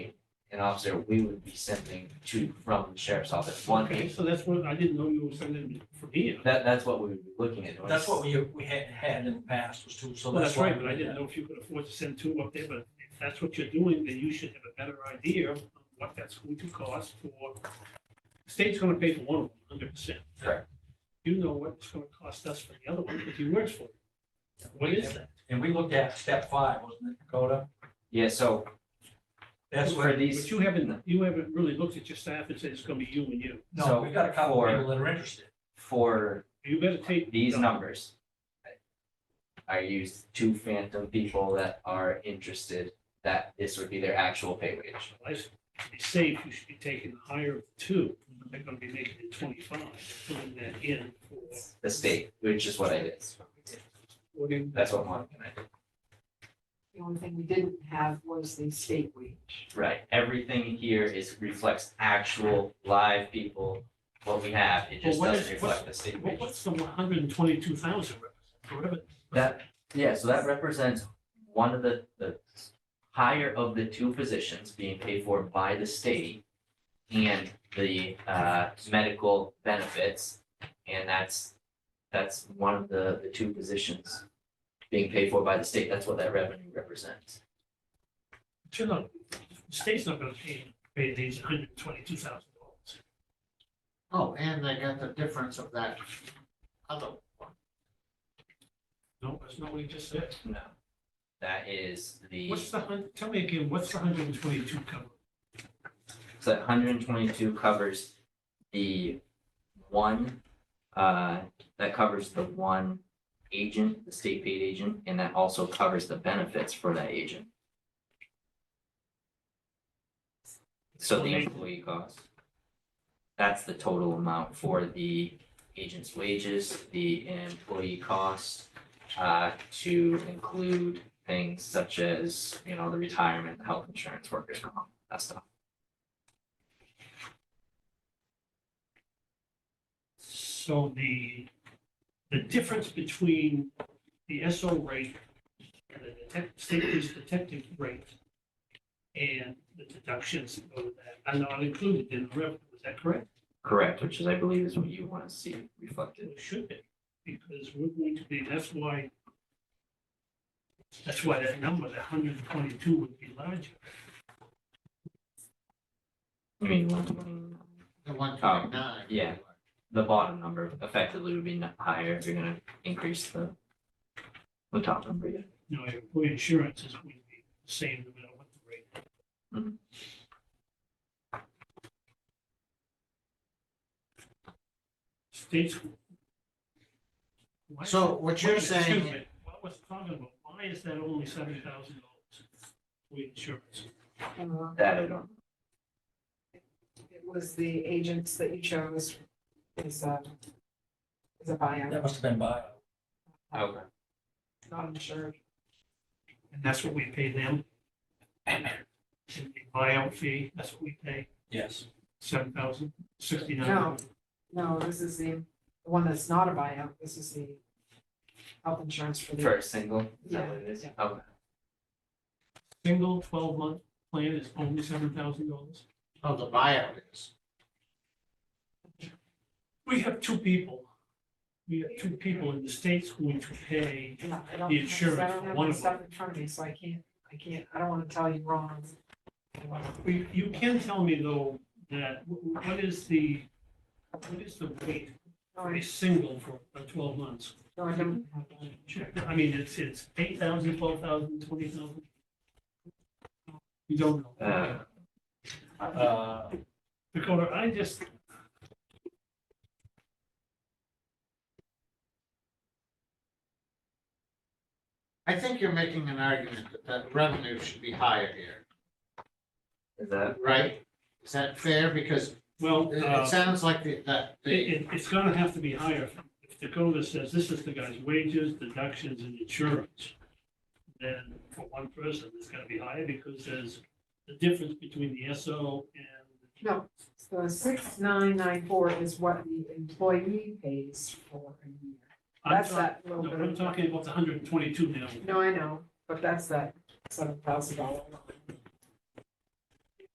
an officer, we would be sending to, from the sheriff's office, one Okay, agent. so that's what, I didn't know you were sending from here. That, that's what we would be looking at. That's what we, we had, had in the past was two, so Well, that's that's why. right, but I didn't know if you could afford to send two up there, but if that's what you're doing, then you should have a better idea of what that's going to cost for. the State's gonna pay for one of them, hundred percent. Correct. You know what it's gonna cost us for the other one, if he works for it. What is that? And we looked at step five, wasn't it, Dakota? Yeah, so That's for where, these, But you haven't, you haven't really looked at your staff and said it's gonna be you and you. no, So we've got a couple for- people that are interested. for You better take. these numbers. I used two phantom people that are interested, that this would be their actual pay wage. I s- To be safe, you should be taking the higher of two, they're gonna be making it twenty-five, putting that in for The state, which is what I did. forty. That's what Monica and I did. The only thing we didn't have was the state wage. Right, everything here is reflects actual live people, what we have, it just Well, what is- doesn't reflect the state Well, wage. what's the one hundred and twenty-two thousand represent? That, yeah, so that represents one of the, the higher of the two positions being paid for by the state and the, uh, medical benefits, and that's, that's one of the, the two positions being paid for by the state, that's what that revenue represents. You know, the state's not gonna pay, pay these hundred and twenty-two thousand dollars. Oh, and they got the difference of that other one. No, that's not what he just said. No. That is the, What's the hun, tell me again, what's the hundred and twenty-two cover? so that hundred and twenty-two covers the one, uh, that covers the one agent, the state paid agent, and that also covers the benefits for that agent. So the employee cost. That's the total amount for the agent's wages, the employee cost, uh, to include things such as, you know, the retirement, the health insurance, workers' comp, that stuff. So the, the difference between the SO rate and the detec- state police detective rate and the deductions over that are not included in the revenue, is that correct? Correct, which is, I believe, is what you want to see reflected. It should be, because we're going to be, that's why, that's why that number, the hundred and twenty-two would be larger. I mean, when- The one twenty-nine. yeah. the bottom number effectively would be n- higher if you're gonna increase the the top number, yeah. You know, employee insurance is going to be the same no matter what the rate. Mhm. States. Why is So it- what you're wait a minute, excuse saying- me, What was talking about, why is that only seven thousand dollars for insurance? Uh, That I don't, It was the agents that you chose is a, is a buyout, That must have been by. okay. not insured. And that's what we pay them. And the buyout fee, that's what we pay, Yes. seven thousand sixty-nine. No. No, this is the the one that's not a buyout. This is the health insurance for the. For a single, is that what it is? Yeah, Okay, Single twelve-month plan is only seven thousand dollars. Oh, the buyout is. We have two people. We have two people in the states going to pay, Yeah, I don't, The insurance I for don't have one of my them. stuff in front of me, so I can't, I can't, I don't want to tell you wrong. We- you can tell me though, that, wh- wh- what is the, what is the rate No, for a I- single for uh, twelve months? no, I don't have that. Check. I mean, it's, it's eight thousand, twelve thousand, twenty thousand? You don't know. Uh. Uh, Dakota, I just. I think you're making an argument that that revenue should be higher here, is that, right? Is that fair? Because Well, it, uh, it sounds like the, that, it, the, it- it's gonna have to be higher. If Dakota says this is the guy's wages, deductions and insurance, then for one person, it's gonna be higher because there's the difference between the SO and No, so six nine nine four is what the employee pays for a year. I'm That's talk- that little No, bit. I'm of- talking about the hundred and twenty-two now. No, I know, but that's that seven thousand dollar.